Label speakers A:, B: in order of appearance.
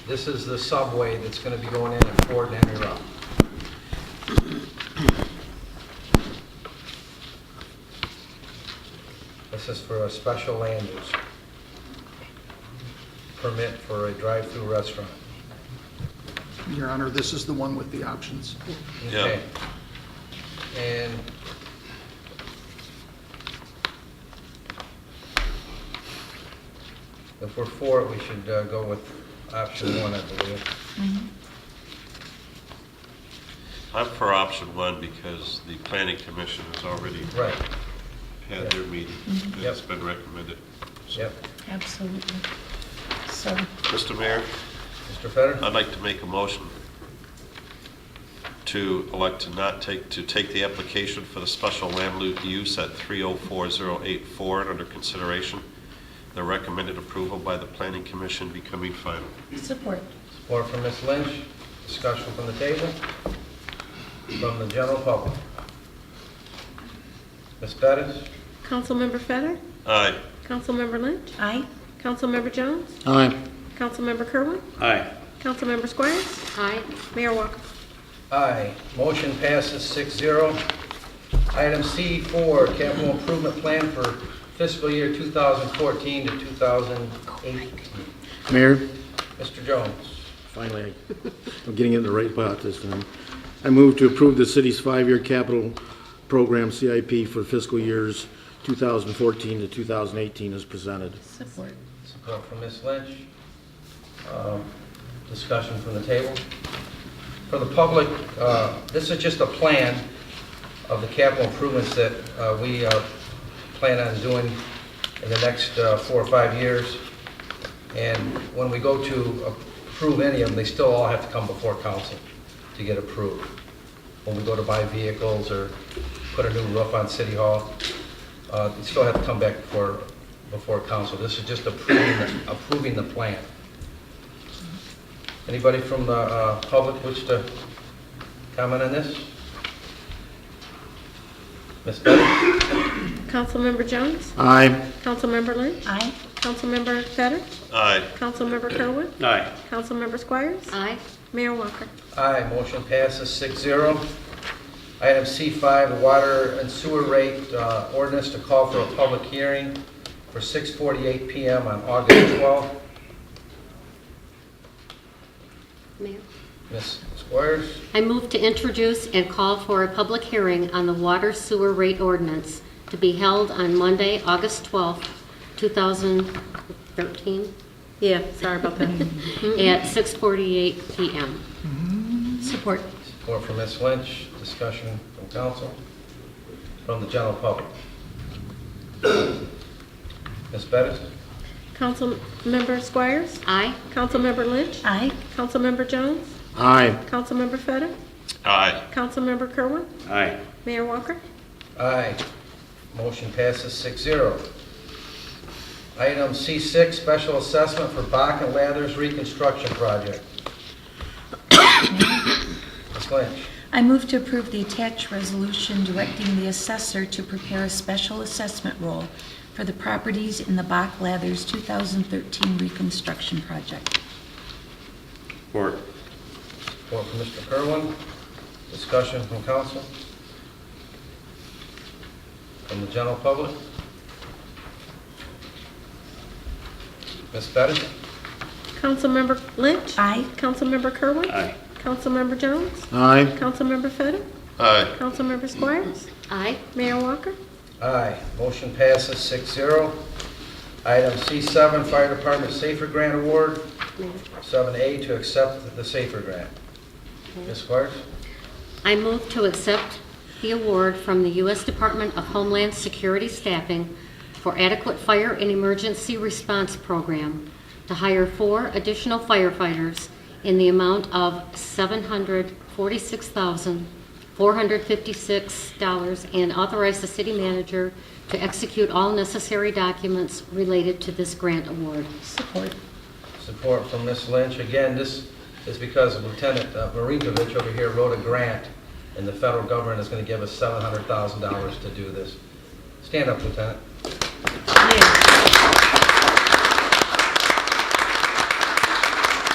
A: This is the subway that's going to be going in at Ford and Henry Road. This is for a special land use permit for a drive-through restaurant.
B: Your Honor, this is the one with the options.
A: Okay. And if we're for it, we should uh, go with option one, I believe.
C: I'm for option one because the planning commission has already
A: Right,
C: had their meeting. and It's been recommended.
A: yep.
D: Absolutely. So,
C: Mr. Mayor,
A: Mr. Fetter?
C: I'd like to make a motion to elect to not take, to take the application for the special land lu- use at 304084 and under consideration. The recommended approval by the planning commission becoming final.
D: support.
A: Support from Ms. Lynch, discussion from the table, from the general public. Ms. Bettis?
E: Councilmember Fetter,
C: Aye.
E: Councilmember Lynch,
D: Aye.
E: Councilmember Jones,
F: Aye.
E: Councilmember Kerwin,
F: Aye.
E: Councilmember Squires. Aye. Mayor Walker.
A: Aye. Motion passes 6-0. Item C four, capital improvement plan for fiscal year two thousand fourteen to two thousand eighteen.
F: Mayor,
A: Mr. Jones,
F: finally, I'm getting it in the right spot this time. I move to approve the city's five-year capital program CIP for fiscal years 2014 to 2018 as presented.
D: Support.
A: support from Ms. Lynch, Um, discussion from the table. For the public, uh, this is just a plan of the capital improvements that uh, we uh, plan on doing in the next uh, four or five years. And when we go to approve any of them, they still all have to come before council to get approved. When we go to buy vehicles or put a new roof on City Hall, uh, they still have to come back before, before council. This is just approving, the- approving the plan. Anybody from the uh, public wish to comment on this? Ms. Bettis?
E: Councilmember Jones,
F: Aye.
E: Councilmember Lynch,
D: Aye.
E: Councilmember Fetter,
C: Aye.
E: Councilmember Kerwin,
F: Aye.
E: Councilmember Squires. Aye. Mayor Walker.
A: Aye, motion passes 6-0. Item C5, the water and sewer rate uh, ordinance to call for a public hearing for 6:48 PM on August 12th.
G: Mayor,
A: Ms. Squires,
G: I move to introduce and call for a public hearing on the water sewer rate ordinance to be held on Monday, August 12th, 2013. Yeah, sorry about that. At 6:48 PM.
D: Support.
A: support from Ms. Lynch, discussion from council, from the general public. Ms. Bettis?
E: Councilmember Squires,
G: Aye.
E: Councilmember Lynch,
D: Aye.
E: Councilmember Jones,
F: Aye.
E: Councilmember Fetter,
C: Aye.
E: Councilmember Kerwin,
F: Aye.
E: Mayor Walker.
A: Aye. Motion passes 6-0. Item C6, special assessment for Bach and Lathers reconstruction project. Ms. Lynch,
D: I move to approve the attached resolution directing the assessor to prepare a special assessment roll for the properties in the Bach Lathers 2013 reconstruction project.
F: Support.
A: support from Mr. Kerwin, discussion from council, from the general public. Ms. Bettis?
E: Councilmember Lynch.
D: Aye.
E: Councilmember Kerwin.
F: Aye.
E: Councilmember Jones,
F: Aye.
E: Councilmember Fetter,
C: Aye.
E: Councilmember Squires,
G: Aye.
E: Mayor Walker.
A: Aye, motion passes 6-0. Item C7, Fire Department Safer Grant Award, 7A to accept the Safer Grant. Ms. Squires?
G: I move to accept the award from the U.S. Department of Homeland Security Staffing for adequate fire and emergency response program to hire four additional firefighters in the amount of $746,456 and authorize the city manager to execute all necessary documents related to this grant award.
D: Support.
A: Support from Ms. Lynch. Again, this is because Lieutenant uh, Marinkovich over here wrote a grant, and the federal government is going to give us $700,000 to do this. Stand up, Lieutenant.